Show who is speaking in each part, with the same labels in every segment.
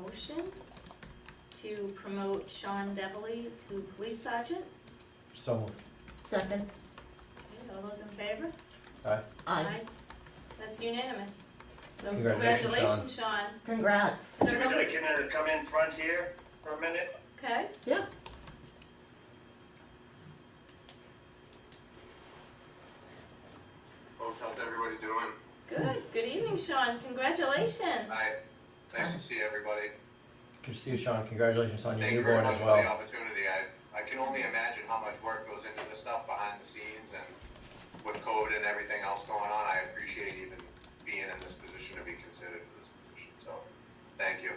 Speaker 1: motion to promote Sean Deverly to police sergeant.
Speaker 2: So moved.
Speaker 3: Second,
Speaker 1: Okay, All those in favor?
Speaker 3: aye.
Speaker 1: That's unanimous. So
Speaker 2: Congratulations, Sean.
Speaker 1: congratulations, Sean.
Speaker 3: Congrats.
Speaker 1: I don't know if we-
Speaker 4: Can I come in front here for a minute?
Speaker 1: Okay.
Speaker 3: Yeah.
Speaker 4: Folks, how's everybody doing?
Speaker 1: Good. Good evening, Sean. Congratulations.
Speaker 4: Hi, nice to see everybody.
Speaker 2: Good to see you, Sean. Congratulations on your
Speaker 4: Thank you very
Speaker 2: newborn
Speaker 4: much
Speaker 2: as
Speaker 4: for the
Speaker 2: well.
Speaker 4: opportunity. I, I can only imagine how much work goes into this stuff behind the scenes and with COVID and everything else going on, I appreciate even being in this position to be considered for this position, so, thank you.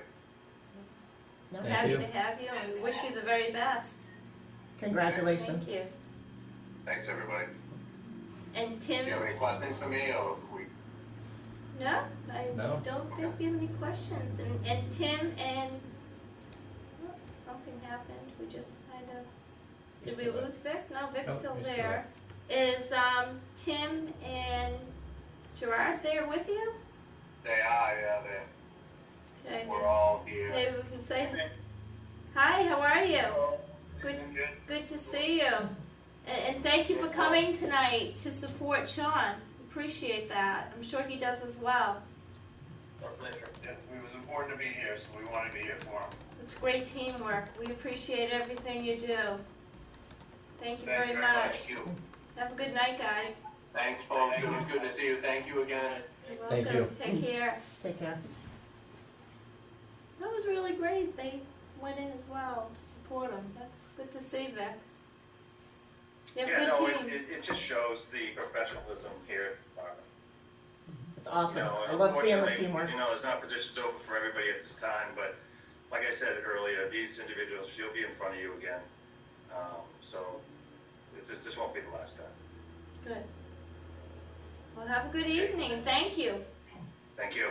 Speaker 3: No,
Speaker 2: Thank
Speaker 1: Happy
Speaker 2: you.
Speaker 1: to have you, and we wish you the very best.
Speaker 3: Congratulations.
Speaker 1: Thank you.
Speaker 4: Thanks, everybody.
Speaker 1: And
Speaker 4: Do you have
Speaker 1: Tim,
Speaker 4: any questions for me or we
Speaker 1: no, I
Speaker 2: No?
Speaker 1: don't think we have any questions. And, and Tim and, oh, something happened. We just kind of Did we lose Vic? No, Vic's
Speaker 2: Nope,
Speaker 1: still
Speaker 2: he's still
Speaker 1: there. Is um, Tim and Gerard there with you?
Speaker 4: They are, yeah, they,
Speaker 1: Okay,
Speaker 4: we're all here.
Speaker 1: maybe we can say, hi, how are you? Good, good to see you. And, and thank you for coming tonight to support Sean. Appreciate that. I'm sure he does as well.
Speaker 4: Our pleasure. It was important to be here, so we wanted to be here for him.
Speaker 1: It's great teamwork. We appreciate everything you do. Thank you very
Speaker 4: Thank
Speaker 1: much.
Speaker 4: you.
Speaker 1: Have a good night, guys.
Speaker 4: Thanks, folks. It was good to see you. Thank you again.
Speaker 1: You're
Speaker 2: Thank
Speaker 1: welcome.
Speaker 2: you.
Speaker 1: Take care.
Speaker 3: Take care.
Speaker 1: That was really great. They went in as well to support him. That's good to see, Vic. You
Speaker 5: Yeah,
Speaker 1: have a
Speaker 5: no,
Speaker 1: good
Speaker 5: it,
Speaker 1: team.
Speaker 5: it, it just shows the professionalism here. uh,
Speaker 3: It's
Speaker 5: You
Speaker 3: awesome.
Speaker 5: know,
Speaker 3: I love seeing the
Speaker 5: unfortunately,
Speaker 3: teamwork.
Speaker 5: You know, there's not positions open for everybody at this time, but like I said earlier, these individuals, you'll be in front of you again. Um, so this, this, this won't be the last time.
Speaker 1: Good. Well, have a good evening and thank you.
Speaker 5: Thank you.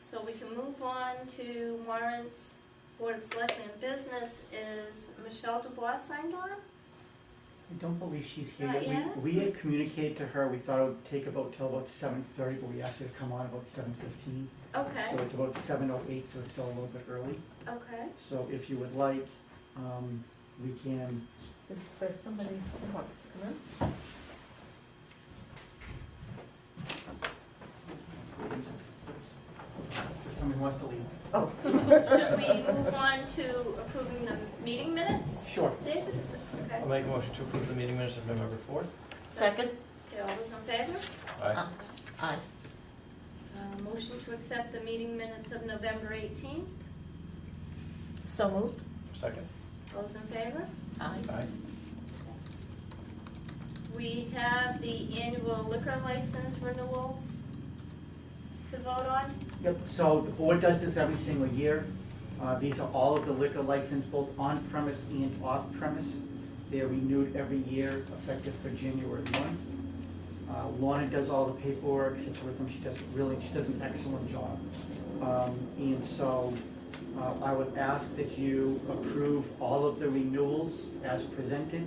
Speaker 1: So we can move on to warrants. Board of Selectmen business is Michelle Dubois signed on?
Speaker 6: I don't believe she's here
Speaker 1: Not
Speaker 6: yet.
Speaker 1: yet?
Speaker 6: We, we had communicated to her, we thought it would take about till about seven thirty, but we asked her to come on about seven fifteen.
Speaker 1: Okay,
Speaker 6: So it's about seven oh eight, so it's still a little bit early.
Speaker 1: okay.
Speaker 6: So if you would like, um, we can,
Speaker 3: Is there somebody who wants to come in?
Speaker 6: if someone wants to leave.
Speaker 3: Oh.
Speaker 1: Should we move on to approving the meeting minutes?
Speaker 6: Sure.
Speaker 1: David, is it? Okay.
Speaker 2: I'll make a motion to approve the meeting minutes of November fourth.
Speaker 3: Second,
Speaker 1: Okay, all those in favor?
Speaker 2: Aye.
Speaker 3: aye.
Speaker 1: Uh, Motion to accept the meeting minutes of November 18th.
Speaker 3: So moved,
Speaker 2: Second.
Speaker 1: All Those in favor?
Speaker 3: aye.
Speaker 2: Aye.
Speaker 1: We have the annual liquor license renewals to vote on.
Speaker 6: Yep, so the board does this every single year. Uh, These are all of the liquor license, both on-premise and off-premise. They're renewed every year, effective for January one. Uh, Lorna does all the paperwork, sits with them, she does really, she does an excellent job. Um, And so uh, I would ask that you approve all of the renewals as presented,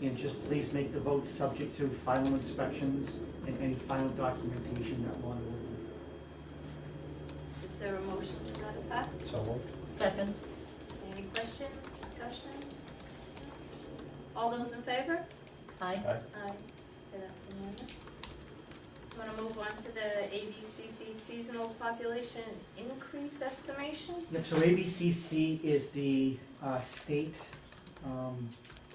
Speaker 6: and just please make the vote subject to final inspections and any final documentation that Lorna will need.
Speaker 1: Is there a motion to that effect?
Speaker 2: So moved.
Speaker 3: Second,
Speaker 1: Any questions, discussion? All those in favor?
Speaker 3: aye.
Speaker 1: Aye. Okay, that's unanimous. Want to move on to the ABCC seasonal population increase estimation?
Speaker 6: Yep, so ABCC is the uh, state um,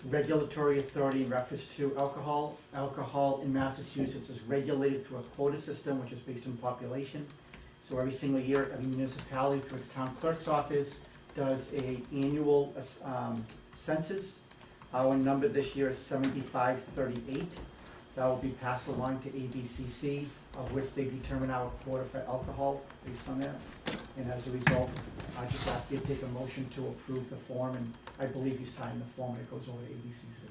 Speaker 6: regulatory authority in reference to alcohol. Alcohol in Massachusetts is regulated through a quota system, which is based on population. So every single year, every municipality through its town clerk's office does a annual um, census. Our number this year is seventy-five thirty-eight. That will be passed along to ABCC, of which they determine our quota for alcohol based on that. And as a result, I just ask you to take a motion to approve the form, and I believe you signed the form, it goes over to ABCC.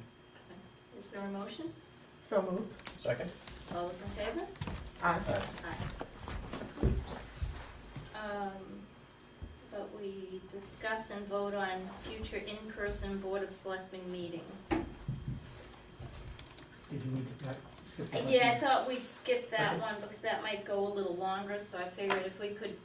Speaker 1: Is there a motion?
Speaker 3: So moved,
Speaker 2: Second.
Speaker 1: All those in favor?
Speaker 3: aye.
Speaker 2: Aye.
Speaker 1: Um, But we discuss and vote on future in-person Board of Selectmen meetings.
Speaker 6: Did you need to, uh, skip the
Speaker 1: Yeah, I thought we'd skip that one because that might go a little longer, so I figured if we could